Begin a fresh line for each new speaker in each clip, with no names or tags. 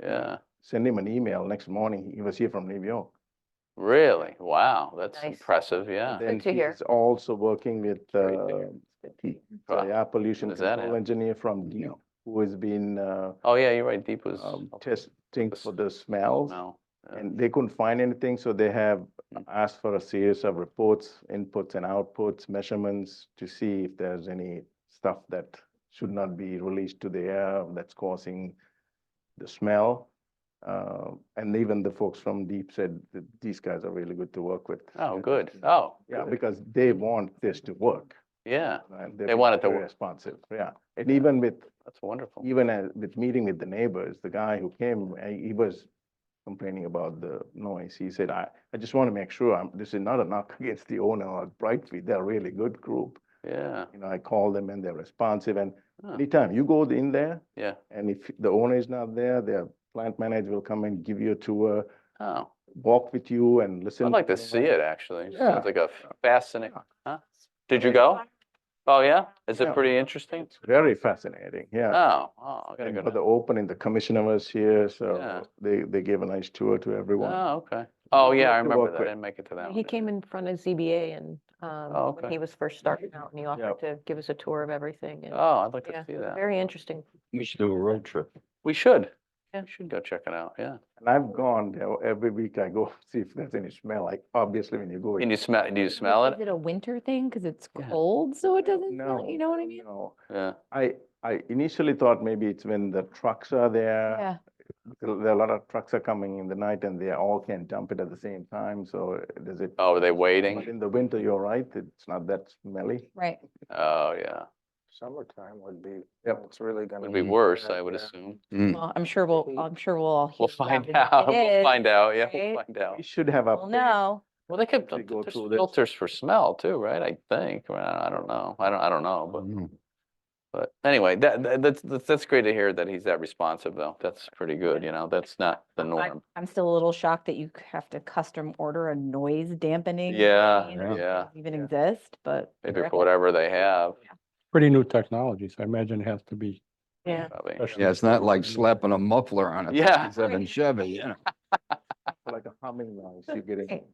Yeah,
Send him an email next morning. He was here from New York.
really? Wow, that's
Nice.
impressive, yeah.
Then
to hear.
he's also working with,
Great Ah. to hear.
uh,
Wow.
the air pollution
does that
control
happen?
engineer from Deep, who has been, uh,
Oh, yeah, you're right, Deep was.
um,
up-
testing
was-
for the smells.
No, yeah.
And they couldn't find anything, so they have
Mm.
asked for a series of reports, inputs and outputs, measurements to see if there's any stuff that should not be released to the air that's causing the smell. Uh, and even the folks from Deep said that these guys are really good to work with.
Oh, good. Oh,
Yeah,
good.
because they want this to work.
yeah,
right?
They want it to
very
work.
Responsive, yeah. And even with
that's wonderful.
even at, with meeting with the neighbors, the guy who came, uh, he was complaining about the noise. He said, I, I just want to make sure I'm, this is not a knock against the owner or Brightfield. They're a really good group.
Yeah,
You know, I call them and they're responsive and
Huh.
anytime you go in there
yeah.
and if the owner is not there, their plant manager will come and give you a tour,
Oh,
walk with you and listen.
I'd like to
the
see it, actually.
Yeah.
Sounds like a fascinating,
Yeah.
huh? Did you go? Oh, yeah? Is it
Yeah.
pretty interesting?
Very fascinating, yeah.
Oh, oh, I gotta
And
go.
for the
down.
opening, the commissioner was here,
Yeah.
so they, they gave a nice tour to everyone.
Oh, okay. Oh, yeah, I
have to
remember
work
that. I
with-
didn't make it to that one.
He
yeah.
came in front of ZBA and,
Oh,
um,
okay.
when he was first starting out and he offered
Yep.
to give us a tour of everything and,
Oh, I'd like
yeah,
to see
it was
that.
very interesting.
We should do a road trip.
We should.
Yeah.
We should go check it out, yeah.
And I've gone there every week. I go see if there's any smell. Like obviously when you go.
And
in
you smell, do you smell
Is
it?
it a winter thing? Because it's
Yeah.
cold, so it doesn't, smell- you know what I mean?
No,
Yeah,
I, I initially thought maybe it's when the trucks are there.
Yeah,
There are a lot of trucks are coming in the night and they all can dump it at the same time. So does it?
oh, are they
But
waiting?
in the winter, you're right. It's not that smelly.
right.
Oh, yeah,
Summertime would be,
Yep.
it's really gonna.
would be
Mm.
worse,
Yeah,
I would
yeah.
assume.
Well, I'm sure we'll, I'm sure we'll all.
Hmm. We'll
hear
find
about
out,
it. It
we'll
is.
find out, yeah, we'll
right?
find out.
We should have a.
We'll know.
Well, they could,
actually go
there's
through this.
filters for smell too, right? I think, Well, I don't know, I don't, I don't know,
Mm-hmm.
but, but anyway, that, that- that's, that's, that's great to hear that he's that responsive though. That's pretty good, you know, that's not the
I-
norm.
I'm still a little shocked that you c- have to custom order a noise dampening.
Yeah,
machine that
yeah.
doesn't Even exist, but.
Maybe
you're
for whatever they have,
pretty new technology, so I imagine it has to be.
Yeah.
probably.
Special.
Yeah, it's not like slapping a muffler on a
Yeah.
fifty-seven Chevy, you know.
Like a humming noise you're getting.
Right.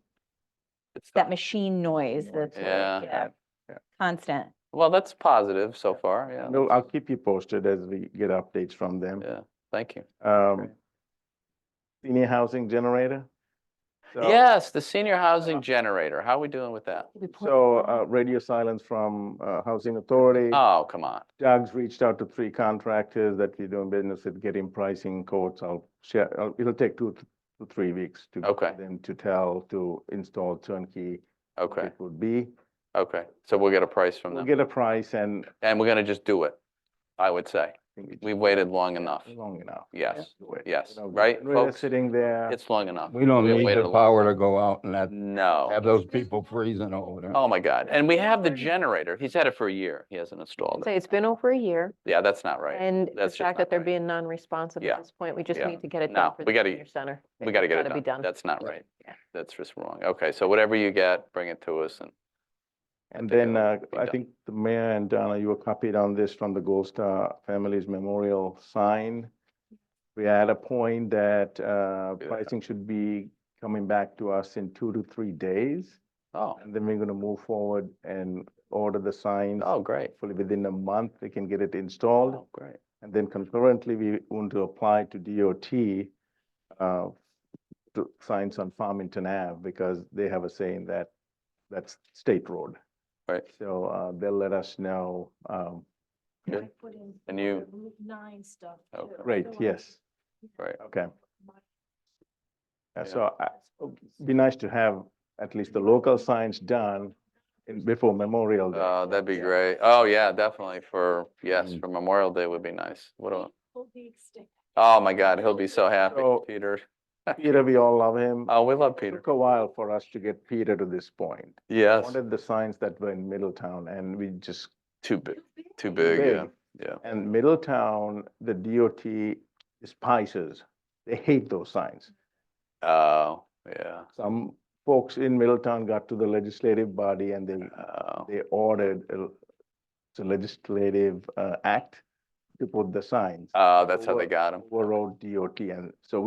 It's
That machine noise that's. like,
Yeah.
Yeah.
Constant.
Well, that's positive so far, yeah. that's-
No, I'll keep you posted as we get updates from them.
Yeah, thank you.
Um, senior housing generator. So- Uh-huh.
Yes, the senior housing generator, how are we doing with that?
So uh, radio silence from uh, Housing Authority.
Oh, come on.
Doug's reached out to three contractors that we're doing business with, getting pricing quotes. I'll share, I'll- it'll take two th- to three weeks to.
Okay.
for Them to tell, to install turnkey. what
Okay,
It would be.
okay. So we'll get a price from
We'll
them.
get a price and.
And we're gonna just do it, I would say.
I think it's
We waited long enough.
Long enough.
Yes,
Let's do it.
yes,
You know,
right,
generator
folks?
Sitting there.
It's long enough.
We don't
We
need
waited a
the
long
power
time.
to go out and that, have
No.
those people freezing over there.
Oh, my God. And we have the generator. He's had it for a year. He hasn't installed
Say,
it.
it's been over a year
Yeah, that's not right.
and the
That's just
fact that
not
they're
right.
being non-responsive
Yeah.
at this point, we just
Yeah.
need to get it
No,
done for
we
the
gotta-
senior center.
We got to get
gotta be
it
done.
done. That's not
Yeah.
right. That's just wrong. Okay, so whatever you get, bring it to us and
And
think it'll
then uh,
be
I
done.
think the mayor and Donna, you were copied on this from the Gold Star Families Memorial sign. We had a point that uh,
Yeah.
pricing should be coming back to us in two to three days.
Oh,
And then we're going to move forward and order the signs.
oh, great.
Hopefully within a month, they can get it installed.
Oh, great.
And then concurrently, we want to apply to DOT uh, to signs on Farmington Ave because they have a saying that that's state road.
Right.
So uh, they'll let us know. um,
Good. And you, Okay.
Great, yes.
Right.
Okay.
Yeah.
Uh, So I- be nice to have at least the local signs done in- before Memorial Day.
uh, that'd be great. Oh, yeah, definitely for, yes,
Mm.
for Memorial Day would be nice. What a, oh, my God, he'll be so happy,
So-
Peter.
Peter, we all love him.
Oh, we love Peter.
Took a while for us to get Peter to this point.
Yes,
Wanted the signs that were in Middletown and we just
too big, too big, yeah, yeah.
And Middletown, the DOT despises, they hate those signs.
Oh, yeah.
Some folks in Middletown got to the legislative body and they,
Oh,
they ordered a it's a legislative uh, act to put the signs.
Uh, that's how they
Over-
got them.
Overall DOT, and so